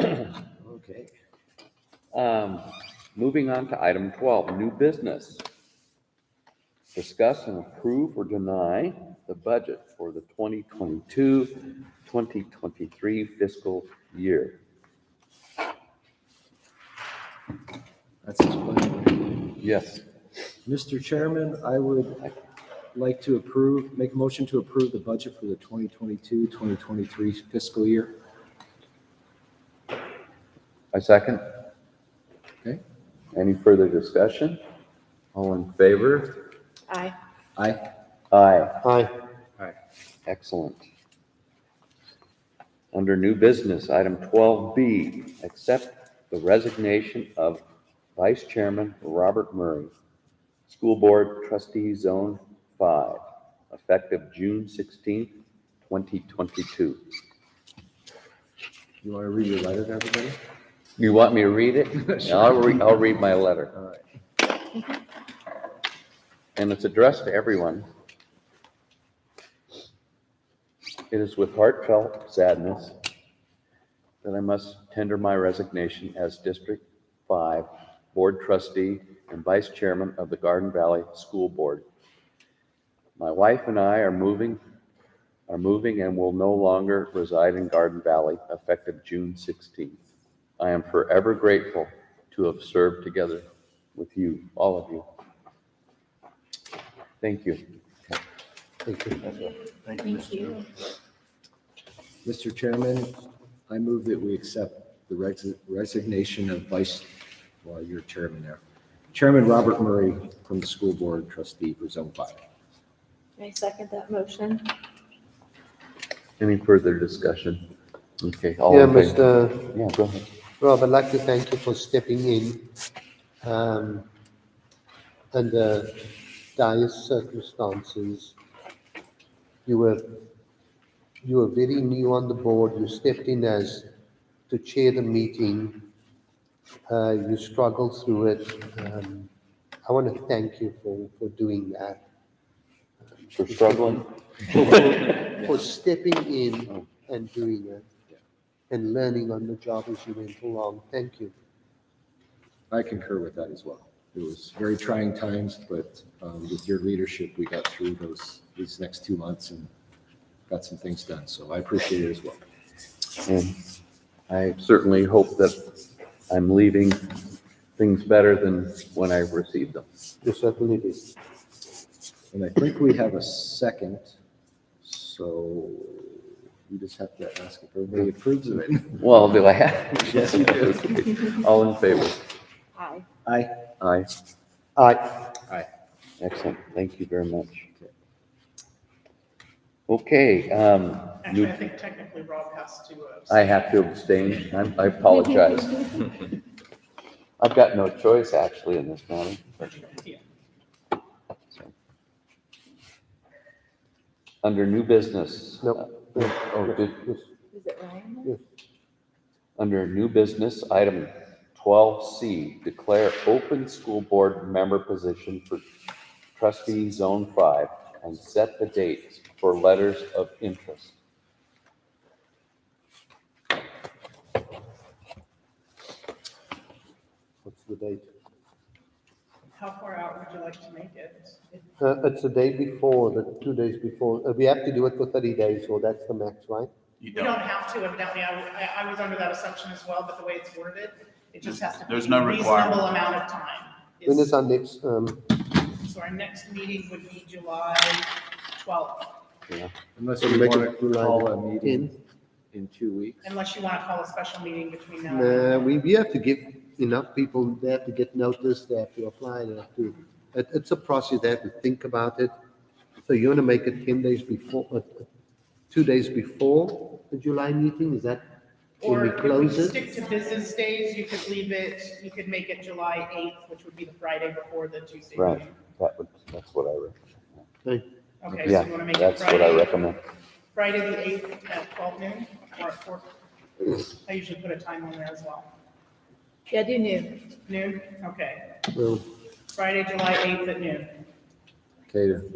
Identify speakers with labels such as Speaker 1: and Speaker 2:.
Speaker 1: Okay.
Speaker 2: Um, moving on to item twelve, new business. Discuss and approve or deny the budget for the 2022-2023 fiscal year.
Speaker 1: That's explanatory.
Speaker 2: Yes,
Speaker 1: Mr. Chairman, I would like to approve, make a motion to approve the budget for the 2022, 2023 fiscal year.
Speaker 2: I second.
Speaker 1: Okay?
Speaker 2: Any further discussion? All in favor?
Speaker 3: Aye.
Speaker 1: Aye.
Speaker 2: Aye.
Speaker 1: Aye.
Speaker 2: Excellent. Under new business, item twelve B, accept the resignation of Vice Chairman Robert Murray, School Board Trustee Zone Five, effective June sixteenth, twenty twenty-two.
Speaker 1: You want to read your letter to everybody?
Speaker 2: You want me to read it? I'll read, I'll read my letter.
Speaker 1: All right.
Speaker 2: and it's addressed to everyone. It is with heartfelt sadness that I must tender my resignation as District 5 Board Trustee and Vice Chairman of the Garden Valley School Board. My wife and I are moving, are moving and will no longer reside in Garden Valley effective June 16th. I am forever grateful to have served together with you, all of you. Thank you.
Speaker 3: Thank you.
Speaker 1: Mr. Chairman, I move that we accept the res- resignation of Vice, well, you're chairman there. Chairman Robert Murray from the school board trustee for Zone 5.
Speaker 3: I second that motion.
Speaker 2: Any further discussion? Okay. all
Speaker 4: Yeah,
Speaker 2: in favor?
Speaker 4: Mr.
Speaker 2: Yeah, go ahead.
Speaker 4: Rob, I'd like to thank you for stepping in um, under dire circumstances. You were, you were very new on the board. You stepped in as to chair the meeting. Uh, You struggled through it. Um, I want to thank you for, for doing that,
Speaker 2: For struggling?
Speaker 4: for stepping in and doing it and learning on the job as you went along. Thank you.
Speaker 1: I concur with that as well. It was very trying times, but um, with your leadership, we got through those, these next two months and got some things done. So I appreciate it as well.
Speaker 2: And I certainly hope that I'm leaving things better than when I received them.
Speaker 4: You certainly did.
Speaker 1: And I think we have a second, so you just have to ask if everybody approves of it.
Speaker 2: Well, do I have?
Speaker 1: Yes, you
Speaker 2: do. All in favor?
Speaker 3: Aye.
Speaker 1: Aye.
Speaker 2: Aye.
Speaker 4: Aye.
Speaker 2: Excellent. Thank you very much. Okay, um,
Speaker 5: Actually,
Speaker 2: new-
Speaker 5: I think technically Rob has to. uh,
Speaker 2: I have to abstain. I'm- I apologize. I've got no choice actually in this matter.
Speaker 5: yeah.
Speaker 2: So. Under new business.
Speaker 4: Nope.
Speaker 2: uh, Oh, did,
Speaker 4: Yes.
Speaker 3: Is it Ryan?
Speaker 2: under new business, item twelve C, declare open school board member position for trustee zone five and set the dates for letters of interest.
Speaker 4: What's the date?
Speaker 5: How far out would you like to make it?
Speaker 4: Uh, it's the day before, the two days before. Uh, we have to do it for thirty days, so that's the max, right?
Speaker 6: You
Speaker 5: You don't
Speaker 6: don't.
Speaker 5: have to evidently. I, I- I was under that assumption as well, but the way it's worded, it just has to. be
Speaker 6: There's no
Speaker 5: a
Speaker 6: requirement.
Speaker 5: Reasonable amount of time.
Speaker 4: When
Speaker 5: is-
Speaker 4: is our next, um,
Speaker 5: So our next meeting would be July twelfth,
Speaker 1: Unless
Speaker 4: So
Speaker 1: you
Speaker 4: make it
Speaker 1: want to
Speaker 4: July
Speaker 1: call a meeting
Speaker 4: 10?
Speaker 1: in two weeks.
Speaker 5: unless you want to call a special meeting between now. and then.
Speaker 4: uh, we, we have to give enough people, they have to get noticed, they have to apply, they have to, it, it's a process, they have to think about it. So you wanna make it ten days before, uh, uh, two days before the July meeting, is that when
Speaker 5: Or
Speaker 4: we
Speaker 5: if
Speaker 4: close
Speaker 5: we
Speaker 4: it?
Speaker 5: stick to business days, you could leave it, you could make it July eighth, which would be the Friday before the Tuesday.
Speaker 2: Right,
Speaker 5: meeting.
Speaker 2: that would, that's what I recommend.
Speaker 4: Hey,
Speaker 5: Okay, so you want to
Speaker 2: Yeah,
Speaker 5: make it
Speaker 2: that's what I
Speaker 5: Friday,
Speaker 2: recommend.
Speaker 5: Friday the eighth at twelve noon or at four? I usually put a time on there as well.
Speaker 3: Yeah, do new.
Speaker 5: Noon, okay.
Speaker 4: well,
Speaker 5: Friday, July eighth at noon.
Speaker 1: Okay,